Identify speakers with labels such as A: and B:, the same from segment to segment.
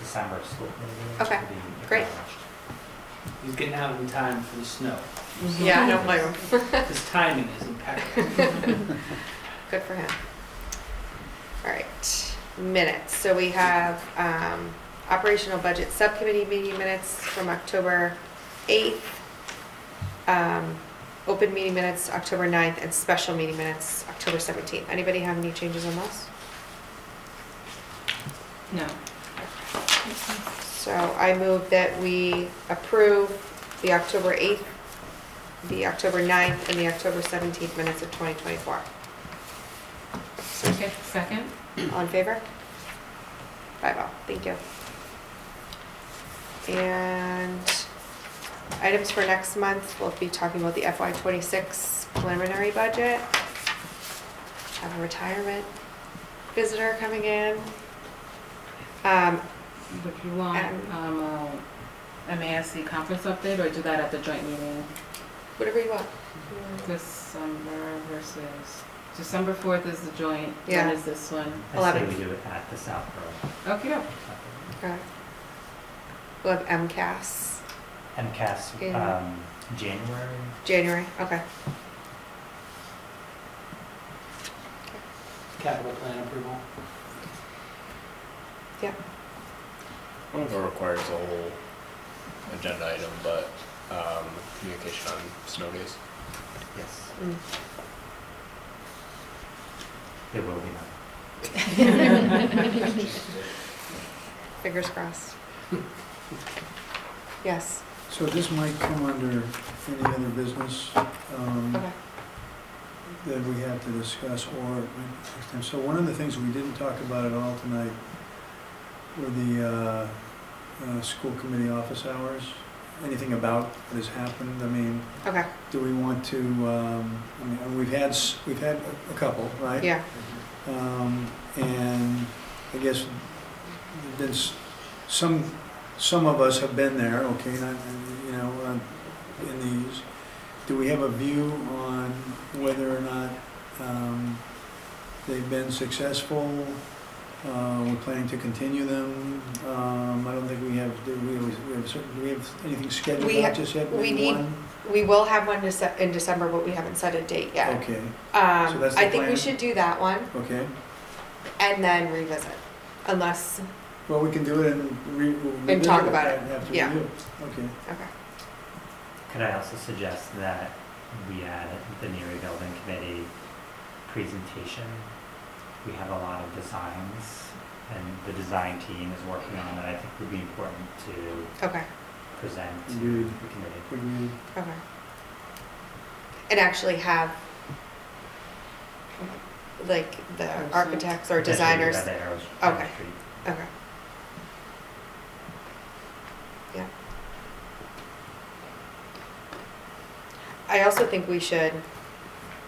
A: December school.
B: Okay,
A: to be
B: great.
A: acknowledged.
C: He's getting out in time for the snow.
B: Yeah, I don't blame him.
C: His timing is impeccable.
B: Good for him. All right, minutes. So we have um, operational budget subcommittee meeting minutes from October 8th, um, open meeting minutes October 9th, and special meeting minutes October 17th. Anybody have any changes on those?
D: No.
B: So I move that we approve the October 8th, the October 9th, and the October 17th minutes of 2024.
D: Second. Second?
B: All in favor? Five oh, thank you. And items for next month, we'll be talking about the FY twenty-six preliminary budget. Have a retirement visitor coming in. Um,
D: Would you want,
B: Um,
D: um, a MASC conference update or do that at the joint meeting?
B: whatever you want.
D: December versus, December fourth is the joint,
B: Yeah.
D: when is this one?
A: I say
B: Eleven.
A: we do it at the South Road.
D: Okay,
B: Okay. We'll have MCAS,
A: MCAS,
B: Yeah.
A: um, January,
B: January, okay.
C: Capital plan approval.
E: I don't know if it requires a whole agenda item, but um, communication on snow days.
A: yes,
B: Mm.
A: there will be none.
B: Fingers crossed. Yes,
F: So this might come under any other business um,
B: okay.
F: that we have to discuss or, it might be- so one of the things we didn't talk about at all tonight were the uh, uh, school committee office hours. Anything about what has happened? I mean,
B: Okay,
F: do we want to, um, I mean, we've had, s- we've had a- a couple, right?
B: yeah,
C: Mm-hmm.
F: Um, And I guess there've been s- some, some of us have been there, okay, not, you know, uh, in these. Do we have a view on whether or not um, they've been successful? Uh, We're planning to continue them. Um, I don't think we have, do we, we have, certain- do we have anything scheduled
B: We
F: out
B: ha-
F: just yet?
B: we
F: Maybe
B: need-
F: one?
B: We will have one Dece- in December, but we haven't set a date yet.
F: Okay, So
B: Um,
F: that's the
B: I think we
F: plan?
B: should do that one
F: okay.
B: and then revisit, unless,
F: Well, we can do it and re. we'll
B: And talk
F: revisit
B: about
F: that After
B: yeah.
F: we do. Okay.
B: okay,
A: Could I also suggest that we add the Neary Building Committee presentation? We have a lot of designs, and the design team is working on that, I think would be important to
B: okay,
A: present to
F: Indeed.
A: the committee.
F: Would we-
B: okay. And actually have, like, the architects or designers,
A: Potentially by the Arrows- Arrow
B: Okay.
A: Street.
B: okay. Yeah. I also think we should,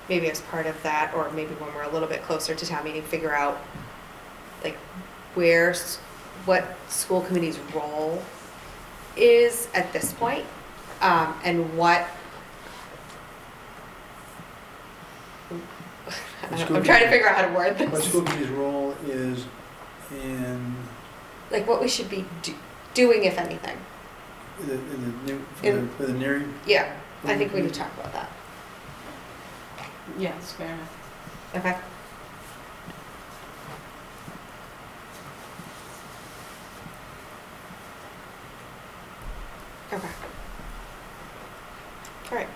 B: maybe as part of that, or maybe when we're a little bit closer to town meeting, figure out, like, where, s- what school committee's role is at this point, um, and what. I don't know, I'm trying to figure out how to word
F: What
B: this,
F: school committee's role is in
B: like, what we should be do- doing, if anything,
F: the, in the, new- for the,
B: In-
F: for the near.
B: yeah, I think we need to talk about that,
D: Yes, fair enough.
B: okay? Okay. All right.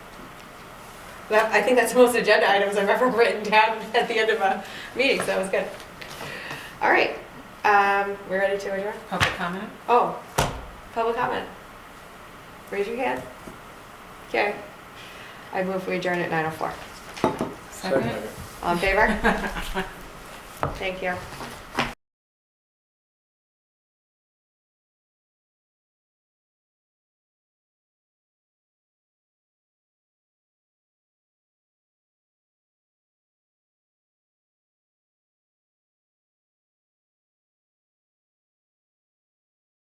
B: That, I think that's the most agenda items I've ever written down at the end of a meeting, so that was good. All right, um, we're ready to adjourn?
D: Public comment?
B: Oh, public comment. Raise your hand. Okay. I move we adjourn at 9:04.
D: Second?
B: All in favor? Thank you.